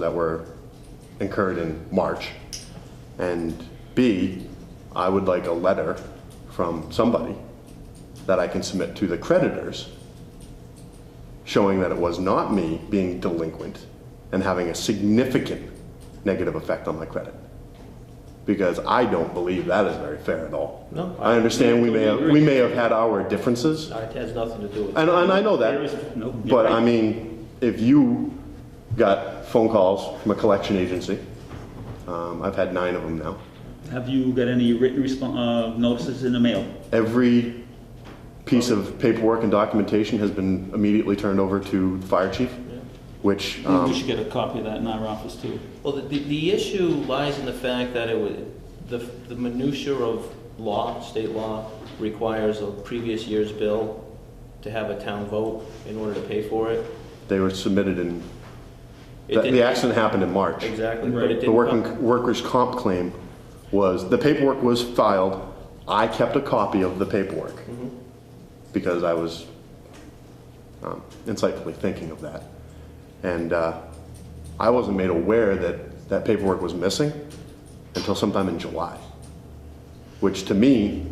that were incurred in March. And B, I would like a letter from somebody that I can submit to the creditors showing that it was not me being delinquent and having a significant negative effect on my credit. Because I don't believe that is very fair at all. No, I- I understand we may have, we may have had our differences, No, It has nothing to do with. and, and I know that. There is- no, you're But right. I mean, if you got phone calls from a collection agency, um, I've had nine of them now. Have you got any written respon uh, notices in the mail? Every piece of paperwork and documentation has been immediately turned over to the fire chief, which, Maybe um, we should get a copy of that in our office too. Well, the, the the issue lies in the fact that it would, the, the minutia of law, state law, requires a previous year's bill to have a town vote in order to pay for it. they were submitted in, It the- didn't- the accident happened in March. Exactly, Right. but it The didn't come. working, workers' comp claim was, the paperwork was filed, I kept a copy of the paperwork. Mm-hmm. Because I was um, insightfully thinking of that. And uh, I wasn't made aware that that paperwork was missing until sometime in July. Which to me,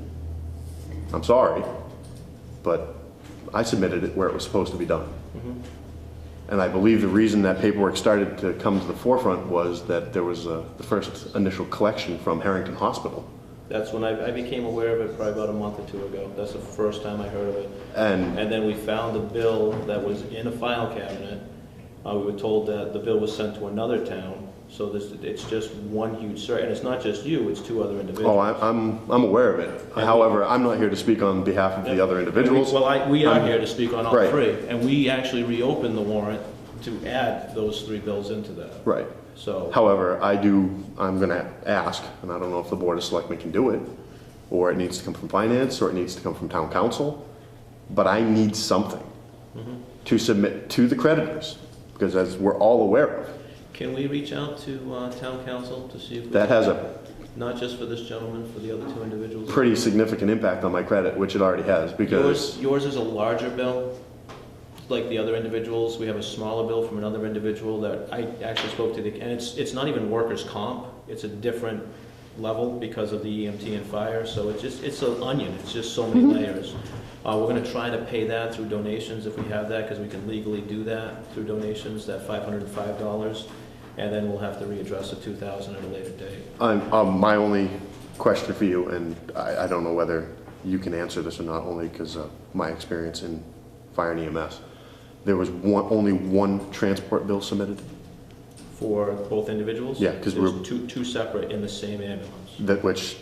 I'm sorry, but I submitted it where it was supposed to be done. And I believe the reason that paperwork started to come to the forefront was that there was uh, the first initial collection from Harrington Hospital. That's when I, I became aware of it probably about a month or two ago. That's the first time I heard of it. And And then we found a bill that was in a file cabinet. Uh, we were told that the bill was sent to another town, so this, it's just one huge search. And it's not just you, it's two other individuals. oh, I, I'm I'm aware of it. However, I'm not here to speak on behalf of the other individuals. Well, I, we are I'm- here to speak on all Right. three, and we actually reopened the warrant to add those three bills into that. Right. So, However, I do. I'm going to ask, and I don't know if the board of selectmen can do it, or it needs to come from finance, or it needs to come from town council. But I need something to submit to the creditors, because as we're all aware of, can we reach out to, uh, town council to see if? we- that has a Not just for this gentleman, for the other two individuals? pretty significant impact on my credit, which it already has, because Yours, yours is a larger bill, like the other individuals. We have a smaller bill from another individual that I actually spoke to the, and it's, it's not even workers' comp. It's a different level because of the EMT and fire, so it's just, it's an onion. It's just so many Mm-hmm. layers. Uh, we're gonna try to pay that through donations if we have that, because we can legally do that through donations, that five hundred and five dollars. And then we'll have to readdress the two thousand at a later date. I'm, um, my only question for you, and I, I don't know whether you can answer this or not, only because of my experience in fire and EMS. There was one, only one transport bill submitted For both individuals? Yeah, 'cause There's we're- Two, two separate in the same ambulance. that, which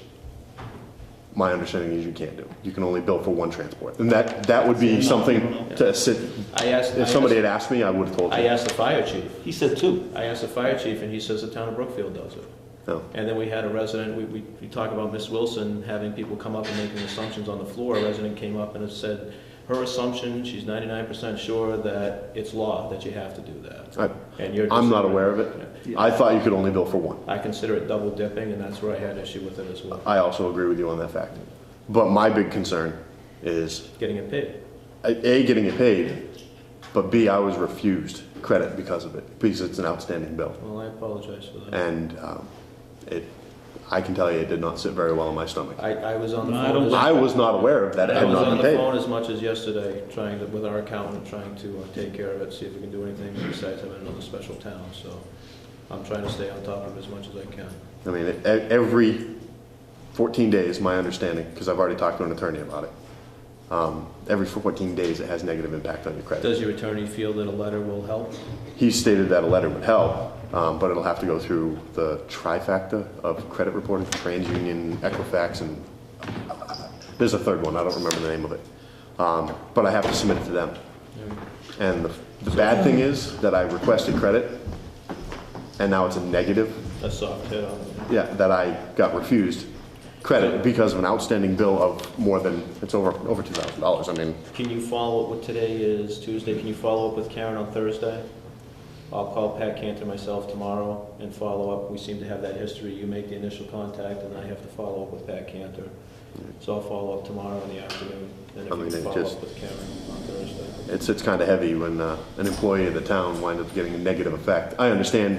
my understanding is you can't do. You can only bill for one transport. And that, that would be something to sit, I asked. I Mm. if somebody had asked- asked me, I would have told I you. asked the fire chief. He said two. I asked the fire chief, and he says the town of Brookfield does it. No. And then we had a resident, we, we, we talk about Miss Wilson having people come up and making assumptions on the floor. A resident came up and said, her assumption, she's ninety-nine percent sure that it's law that you have to do that. I, And you're. I'm not disagreeing. aware of it. I thought you could only bill for one. I consider it double dipping, and that's where I had issue with it as well, I also agree with you on that fact. But my big concern is, getting it paid. A, getting it paid, but B, I was refused credit because of it, because it's an outstanding bill. Well, I apologize for that. And um, it, I can tell you, it did not sit very well on my stomach. I, I was on the No, I phone. don't as- I was not aware of that, it I had was not on been the paid. phone as much as yesterday, trying to, with our accountant, trying to uh, take care of it, see if we can do anything besides having another special town, so I'm trying to stay on top of it as much as I can. I mean, e- every 14 days, my understanding, because I've already talked to an attorney about it, um, every 14 days, it has negative impact on your credit. Does your attorney feel that a letter will help? He stated that a letter would help, um, but it'll have to go through the trifecta of credit reporting, TransUnion, Equifax, and uh, there's a third one, I don't remember the name of it. Um, But I have to submit it to them. And the- the bad thing is that I requested credit, and now it's a negative, A soft hit on it. yeah, that I got refused credit because of an outstanding bill of more than, it's over, over $2,000. I mean, Can you follow up with, today is Tuesday, can you follow up with Karen on Thursday? I'll call Pat Cantor myself tomorrow and follow up, we seem to have that history, you make the initial contact, and I have to follow up with Pat Cantor. So I'll follow up tomorrow in the afternoon, and I mean, if you it follow just- up with Karen on Thursday. it's, it's kind of heavy when uh, an employee of the town winds up getting a negative effect. I understand